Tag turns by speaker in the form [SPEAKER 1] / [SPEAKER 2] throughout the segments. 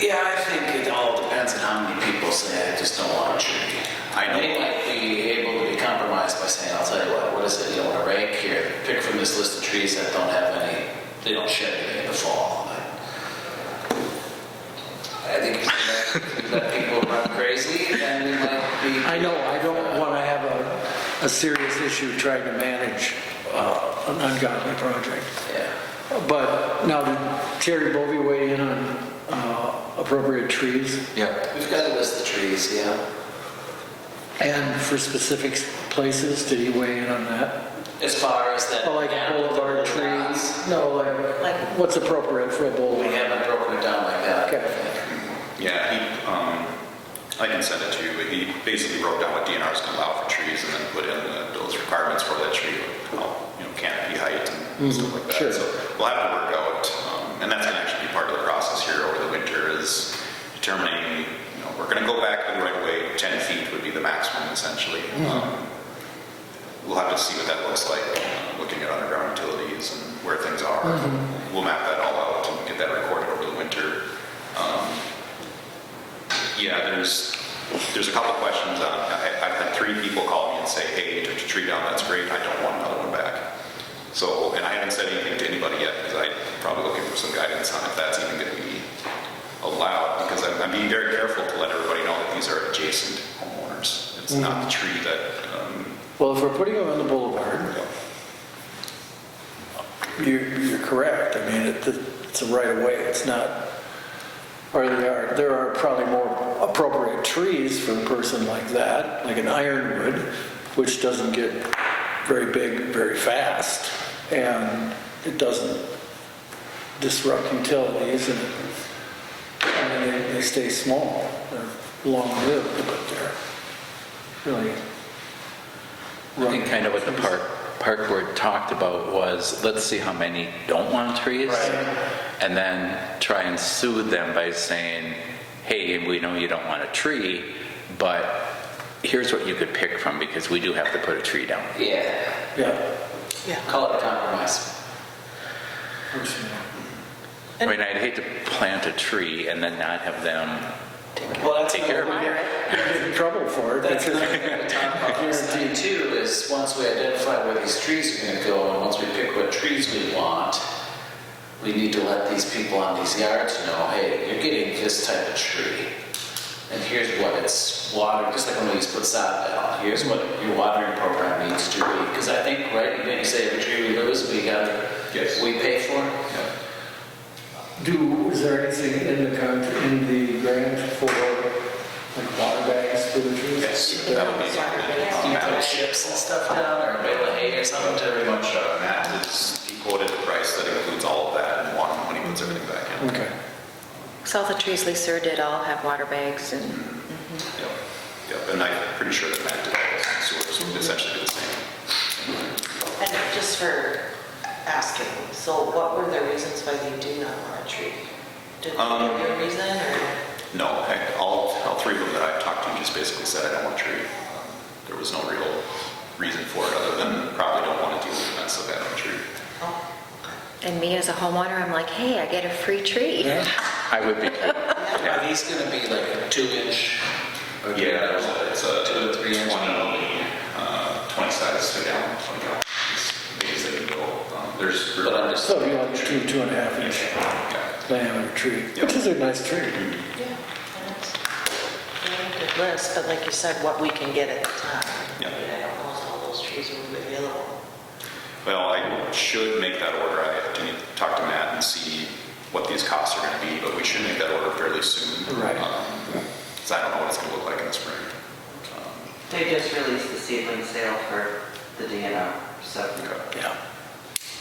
[SPEAKER 1] Yeah, I think it all depends on how many people say, I just don't want a tree.
[SPEAKER 2] I know.
[SPEAKER 1] They might be able to be compromised by saying, I'll tell you what, what is it, you don't want to rake here? Pick from this list of trees that don't have any, they don't shed anything in the fall. But I think if you let let people run crazy, then we might be.
[SPEAKER 3] I know, I don't want to have a, a serious issue trying to manage uh, an ungodly project.
[SPEAKER 1] Yeah.
[SPEAKER 3] But now, did Terry Bovee weigh in on uh, appropriate trees
[SPEAKER 2] Yeah.
[SPEAKER 1] We've got a list of trees, yeah.
[SPEAKER 3] and for specific places? Did he weigh in on that?
[SPEAKER 1] As far as that.
[SPEAKER 3] Oh, Like boulevard trees? No, like,
[SPEAKER 4] Like-
[SPEAKER 3] what's appropriate for a
[SPEAKER 1] We
[SPEAKER 3] boulevard?
[SPEAKER 1] haven't broken it down like that.
[SPEAKER 3] Okay.
[SPEAKER 2] Yeah, he, um, I can send it to you, but he basically wrote down what DNR is gonna allow for trees and then put in the- those requirements for that tree, like, how, you know, canopy height and stuff like
[SPEAKER 3] sure.
[SPEAKER 2] that. So we'll have to work out, um, and that's gonna actually be part of the process here over the winter is determining, you know, we're gonna go back the right way, 10 feet would be the maximum essentially. Um, We'll have to see what that looks like, uh, looking at underground utilities and where things are. We'll map that all out and get that recorded over the winter. Yeah, there's, there's a couple questions on, I, I've had three people call me and say, hey, you took your tree down, that's great, I don't want another one back. So, and I haven't said anything to anybody yet, because I'm probably looking for some guidance on if that's even gonna be allowed, because I'm, I'm being very careful to let everybody know that these are adjacent homeowners. It's not the tree that, um,
[SPEAKER 3] Well, if we're putting them on the boulevard, you're, you're correct. I mean, it- it's a right of way, it's not, or there are, there are probably more appropriate trees for a person like that, like an ironwood, which doesn't get very big very fast, and it doesn't disrupt utilities, and I mean, they, they stay small, they're long-lived, but they're really.
[SPEAKER 5] I think kind of what the park, park board talked about was, let's see how many don't want trees. And then try and soothe them by saying, hey, we know you don't want a tree, but here's what you could pick from because we do have to put a tree down.
[SPEAKER 1] Yeah,
[SPEAKER 3] Yeah.
[SPEAKER 1] call it a compromise.
[SPEAKER 5] I mean, I'd hate to plant a tree and then not have them
[SPEAKER 1] Well, that's
[SPEAKER 5] take care of it.
[SPEAKER 3] get in trouble for it.
[SPEAKER 1] That's
[SPEAKER 3] because-
[SPEAKER 1] another thing we talked about last night too, is once we identify where these trees are gonna go, and once we pick what trees we want, we need to let these people on these yards know, hey, you're getting this type of tree. And here's what it's water, just like when we used to put sod down, here's what your watering program needs to be. Because I think, right, didn't you say every tree we lose, we gotta,
[SPEAKER 2] Yes.
[SPEAKER 1] we pay for it?
[SPEAKER 3] Do, is there anything in the contract, in the grant for like water bags for the trees?
[SPEAKER 2] yes, that would be.
[SPEAKER 1] Do you put
[SPEAKER 2] Matt-
[SPEAKER 1] chips and stuff down, or a bale of hay or something to
[SPEAKER 2] Pretty
[SPEAKER 1] everyone?
[SPEAKER 2] much, uh, Matt is, he quoted a price that includes all of that and one, when he puts everything back in.
[SPEAKER 3] Okay.
[SPEAKER 4] Because all the trees Lisa did all have water bags and,
[SPEAKER 2] Yep, yep, and I'm pretty sure that Matt did all this, so it would essentially be the same.
[SPEAKER 6] And just for asking, so what were the reasons why they do not want a tree? Did they
[SPEAKER 2] Um,
[SPEAKER 6] give you a reason or?
[SPEAKER 2] No, heck, all, all three of them that I've talked to just basically said, I don't want a tree. Um, There was no real reason for it, other than probably don't want to deal with that, so bad on a tree.
[SPEAKER 6] oh,
[SPEAKER 4] and me as a homeowner, I'm like, hey, I get a free tree.
[SPEAKER 3] Yeah.
[SPEAKER 5] I would be,
[SPEAKER 1] Are these gonna be like a two inch? or do you
[SPEAKER 2] Yeah,
[SPEAKER 1] know,
[SPEAKER 2] it's a
[SPEAKER 1] Two or three inch?
[SPEAKER 2] 20, uh, 20 size, go down, 20 down, as they can go. Um, There's.
[SPEAKER 1] But I'm just-
[SPEAKER 3] So you want two, two and a half inch
[SPEAKER 2] Yeah.
[SPEAKER 3] diameter tree,
[SPEAKER 2] Yep.
[SPEAKER 3] which is a nice tree.
[SPEAKER 6] yeah, and it's a really good list, but like you said, what we can get at the time.
[SPEAKER 2] Yeah.
[SPEAKER 6] I mean, I don't know if all those trees will be available.
[SPEAKER 2] Well, I should make that order. I have to talk to Matt and see what these costs are going to be, but we should make that order fairly soon.
[SPEAKER 3] Right.
[SPEAKER 2] Because I don't know what it's going to look like in the spring. Um,
[SPEAKER 7] They just released the seedling sale for the DNR, so.
[SPEAKER 2] okay.
[SPEAKER 3] Yeah.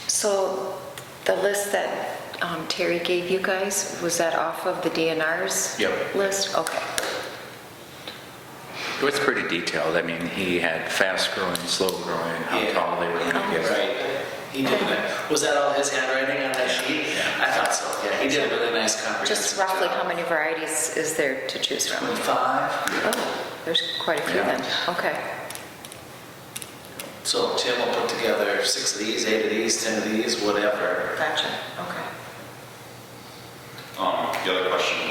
[SPEAKER 4] So the list that um, Terry gave you guys, was that off of the DNR's?
[SPEAKER 5] Yep.
[SPEAKER 4] List? Okay.
[SPEAKER 5] it was pretty detailed. I mean, he had fast growing, slow growing, how
[SPEAKER 1] Yeah.
[SPEAKER 5] tall they were gonna get.
[SPEAKER 1] Right. He did that. Was that all his handwriting on that sheet? I thought so, yeah. He did a really nice comprehensive
[SPEAKER 4] Just
[SPEAKER 1] job.
[SPEAKER 4] roughly, how many varieties is there to choose from?
[SPEAKER 1] Five.
[SPEAKER 4] Oh, there's quite a few
[SPEAKER 5] Yeah.
[SPEAKER 4] then. Okay.
[SPEAKER 1] So Tim will put together six of these, eight of these, 10 of these, whatever.
[SPEAKER 6] Gotcha, okay.
[SPEAKER 2] Um, The other question